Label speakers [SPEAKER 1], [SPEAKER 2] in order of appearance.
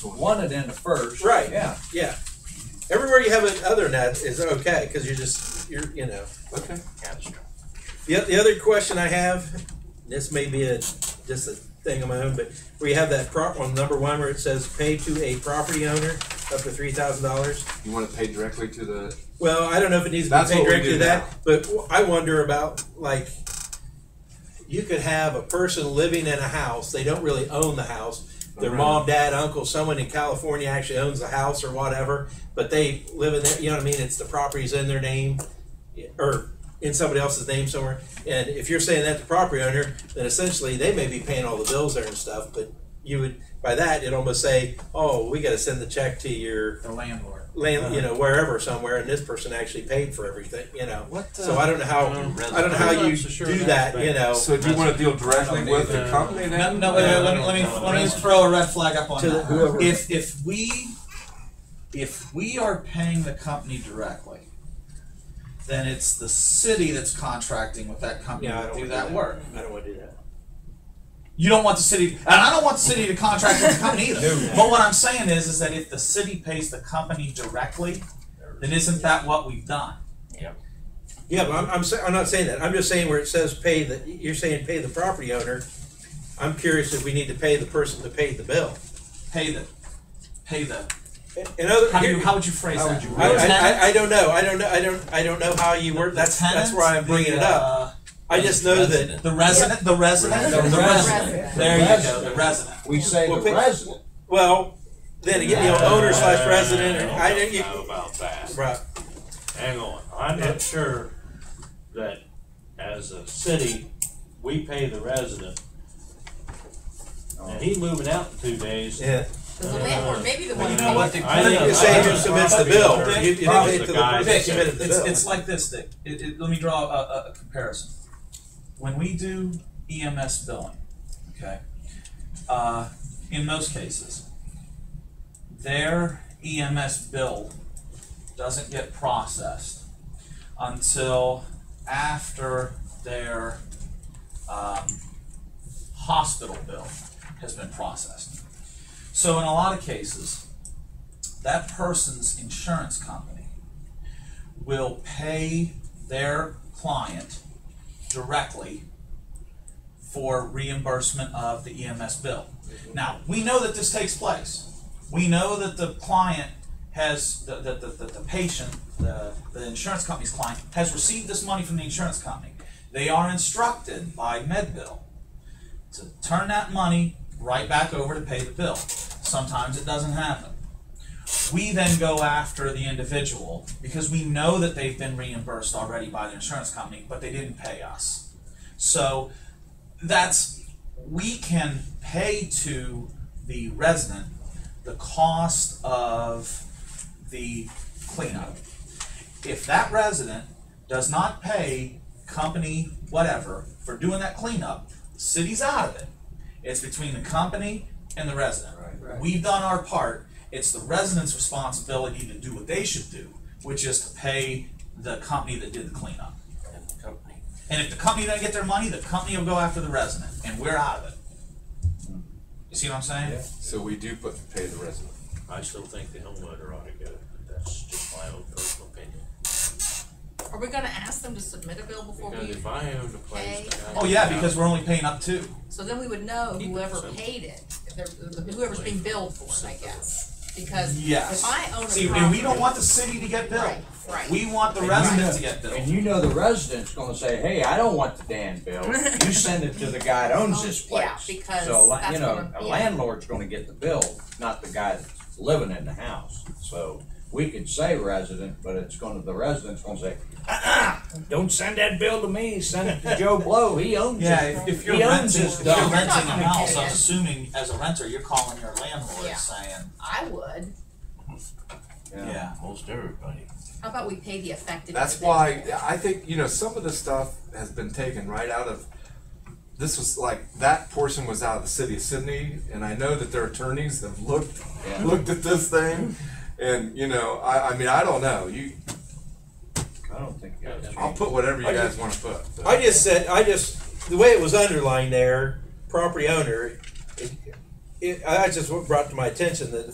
[SPEAKER 1] wanted in the first.
[SPEAKER 2] Right.
[SPEAKER 1] Yeah.
[SPEAKER 2] Yeah. Everywhere you have an other net is okay because you're just you're you know.
[SPEAKER 3] Okay.
[SPEAKER 2] The, the other question I have, this may be a just a thing of my own, but where you have that prop on number one where it says pay to a property owner up to three thousand dollars.
[SPEAKER 3] You want to pay directly to the.
[SPEAKER 2] Well, I don't know if it needs to
[SPEAKER 3] That's
[SPEAKER 2] be paid
[SPEAKER 3] what we
[SPEAKER 2] directly
[SPEAKER 3] do
[SPEAKER 2] to that, but w- I wonder about like you could have a person living in a house. They don't really own the house. Their
[SPEAKER 3] Right.
[SPEAKER 2] mom, dad, uncle, someone in California actually owns the house or whatever, but they live in that. You know what I mean? It's the property's in their name or in somebody else's name somewhere. And if you're saying that to property owner, then essentially they may be paying all the bills there and stuff. But you would by that it almost say, oh, we got to send the check to your
[SPEAKER 1] The landlord.
[SPEAKER 4] Uh-huh.
[SPEAKER 2] land, you know, wherever somewhere, and this person actually paid for everything, you know.
[SPEAKER 4] What,
[SPEAKER 2] so
[SPEAKER 4] uh,
[SPEAKER 2] I don't know how
[SPEAKER 4] um,
[SPEAKER 2] I don't know how
[SPEAKER 4] I'm not
[SPEAKER 2] you
[SPEAKER 4] so sure
[SPEAKER 2] do
[SPEAKER 4] that's
[SPEAKER 2] that,
[SPEAKER 4] bad.
[SPEAKER 2] you know.
[SPEAKER 3] So do you want to deal directly with the company
[SPEAKER 4] No,
[SPEAKER 3] then?
[SPEAKER 4] no, wait, wait, let me,
[SPEAKER 5] No,
[SPEAKER 4] let me,
[SPEAKER 5] no, no,
[SPEAKER 4] let me
[SPEAKER 5] no.
[SPEAKER 4] just throw a red flag up on
[SPEAKER 2] To
[SPEAKER 4] that.
[SPEAKER 2] whoever-
[SPEAKER 4] If, if we, if we are paying the company directly, then it's the city that's contracting with that company
[SPEAKER 2] Yeah, I
[SPEAKER 4] to
[SPEAKER 2] don't
[SPEAKER 4] do
[SPEAKER 2] wanna
[SPEAKER 4] that work.
[SPEAKER 2] I don't want to do that.
[SPEAKER 4] You don't want the city, and I don't want the city to contract with the company either.
[SPEAKER 1] No.
[SPEAKER 4] But what I'm saying is, is that if the city pays the company directly, then isn't that what we've done?
[SPEAKER 2] Yeah, but I'm I'm, sa- I'm not saying that. I'm just saying where it says pay the you're saying pay the property owner. I'm curious if we need to pay the person that paid the bill.
[SPEAKER 4] Pay the, pay the,
[SPEAKER 2] In other
[SPEAKER 4] how do you,
[SPEAKER 2] here-
[SPEAKER 4] how would you phrase
[SPEAKER 3] How
[SPEAKER 4] that?
[SPEAKER 3] would you
[SPEAKER 2] I,
[SPEAKER 3] word
[SPEAKER 4] The
[SPEAKER 2] I,
[SPEAKER 4] tenant?
[SPEAKER 2] I, I don't know. I don't know. I don't. I don't know how you work.
[SPEAKER 4] The
[SPEAKER 2] That's that's
[SPEAKER 4] tenant?
[SPEAKER 2] where I'm bringing
[SPEAKER 4] The,
[SPEAKER 2] it up.
[SPEAKER 4] uh,
[SPEAKER 2] I just know that.
[SPEAKER 4] The resident, the resident,
[SPEAKER 6] The
[SPEAKER 4] the resident.
[SPEAKER 6] resident.
[SPEAKER 4] There you go, the
[SPEAKER 7] Resident.
[SPEAKER 4] resident.
[SPEAKER 7] We say
[SPEAKER 2] Well,
[SPEAKER 7] the
[SPEAKER 2] pick-
[SPEAKER 7] resident.
[SPEAKER 2] Well, then again, you know,
[SPEAKER 4] Uh,
[SPEAKER 2] owner slash resident. or- I
[SPEAKER 5] don't
[SPEAKER 2] didn't.
[SPEAKER 5] know about that.
[SPEAKER 2] Right.
[SPEAKER 5] Hang on, I'm not sure that as a city, we pay the resident. And he moving out in two days.
[SPEAKER 2] Yeah.
[SPEAKER 6] The landlord, maybe the
[SPEAKER 4] Well,
[SPEAKER 6] one.
[SPEAKER 4] you know what?
[SPEAKER 5] I think-
[SPEAKER 2] You're saying who submits the bill. You, you didn't
[SPEAKER 5] Probably
[SPEAKER 2] pay to
[SPEAKER 5] the
[SPEAKER 2] the
[SPEAKER 5] guy
[SPEAKER 2] person
[SPEAKER 5] that
[SPEAKER 2] that
[SPEAKER 4] Vic,
[SPEAKER 2] submitted the
[SPEAKER 4] it's,
[SPEAKER 2] bill.
[SPEAKER 4] it's like this, Dick. It, it, let me draw a, a, a comparison. When we do EMS billing, okay, uh, in most cases, their EMS bill doesn't get processed until after their um, hospital bill has been processed. So, in a lot of cases, that person's insurance company will pay their client directly for reimbursement of the EMS bill. Now, we know that this takes place. We know that the client has, that the, the, the patient, the, the insurance company's client, has received this money from the insurance company. They are instructed by MedBill to turn that money right back over to pay the bill. Sometimes it doesn't happen. We then go after the individual because we know that they've been reimbursed already by the insurance company, but they didn't pay us. So that's, we can pay to the resident the cost of the cleanup. If that resident does not pay company whatever for doing that cleanup, the city's out of it. It's between the company and the resident. We've done our part. It's the resident's responsibility to do what they should do, which is to pay the company that did the cleanup. And if the company doesn't get their money, the company will go after the resident, and we're out of it. You see what I'm saying?
[SPEAKER 3] So we do put, pay the resident.
[SPEAKER 5] I still think the homeowner ought to go, but that's just my own personal opinion.
[SPEAKER 6] Are we gonna ask them to submit a bill before
[SPEAKER 5] Because
[SPEAKER 6] we,
[SPEAKER 5] if I owned a place.
[SPEAKER 6] pay-
[SPEAKER 5] then I
[SPEAKER 4] Oh
[SPEAKER 5] would
[SPEAKER 4] yeah,
[SPEAKER 5] have-
[SPEAKER 4] because we're only paying up two.
[SPEAKER 6] so then we would know
[SPEAKER 5] Keep it
[SPEAKER 6] whoever
[SPEAKER 5] simple.
[SPEAKER 6] paid it, if they're- whoever's being billed for it, I guess. Because
[SPEAKER 4] Yes.
[SPEAKER 6] if I own a property.
[SPEAKER 4] See, and we don't want the city to get billed.
[SPEAKER 6] Right, right.
[SPEAKER 4] We want the
[SPEAKER 7] And you
[SPEAKER 4] residents
[SPEAKER 7] know-
[SPEAKER 4] to get
[SPEAKER 7] And
[SPEAKER 4] billed.
[SPEAKER 7] you know the resident's gonna say, hey, I don't want the damn bill. You send it to the guy that owns this
[SPEAKER 6] Oh,
[SPEAKER 7] place.
[SPEAKER 6] yeah, because
[SPEAKER 7] So, la-
[SPEAKER 6] that's
[SPEAKER 7] you know,
[SPEAKER 6] gonna-
[SPEAKER 7] a
[SPEAKER 6] yeah.
[SPEAKER 7] landlord's gonna get the bill, not the guy that's living in the house. So we could say resident, but it's gonna, the resident's gonna say, uh-uh, don't send that bill to me, send it to Joe Blow, he owns it.
[SPEAKER 4] Yeah, if, if you're
[SPEAKER 7] He owns
[SPEAKER 4] renting,
[SPEAKER 7] this
[SPEAKER 4] if you're
[SPEAKER 7] dump.
[SPEAKER 4] renting a
[SPEAKER 6] We're not gonna
[SPEAKER 4] house,
[SPEAKER 6] pay
[SPEAKER 4] I'm
[SPEAKER 6] it.
[SPEAKER 4] assuming as a renter, you're calling your landlord
[SPEAKER 6] Yeah.
[SPEAKER 4] saying,
[SPEAKER 6] I would.
[SPEAKER 4] yeah.
[SPEAKER 5] Most everybody.
[SPEAKER 6] How about we pay the affected?
[SPEAKER 3] That's
[SPEAKER 6] individual?
[SPEAKER 3] why I think you know some of the stuff has been taken right out of. This was like that portion was out of the city of Sydney, and I know that their attorneys have looked
[SPEAKER 7] Yeah.
[SPEAKER 3] looked at this thing, and you know I, I mean I don't know you.
[SPEAKER 7] I don't think you guys.
[SPEAKER 3] I'll put whatever you
[SPEAKER 2] I
[SPEAKER 3] guys
[SPEAKER 2] just-
[SPEAKER 3] want to put. but-
[SPEAKER 2] I just said, I just, the way it was underlined there, property owner, it, it, I just brought to my attention that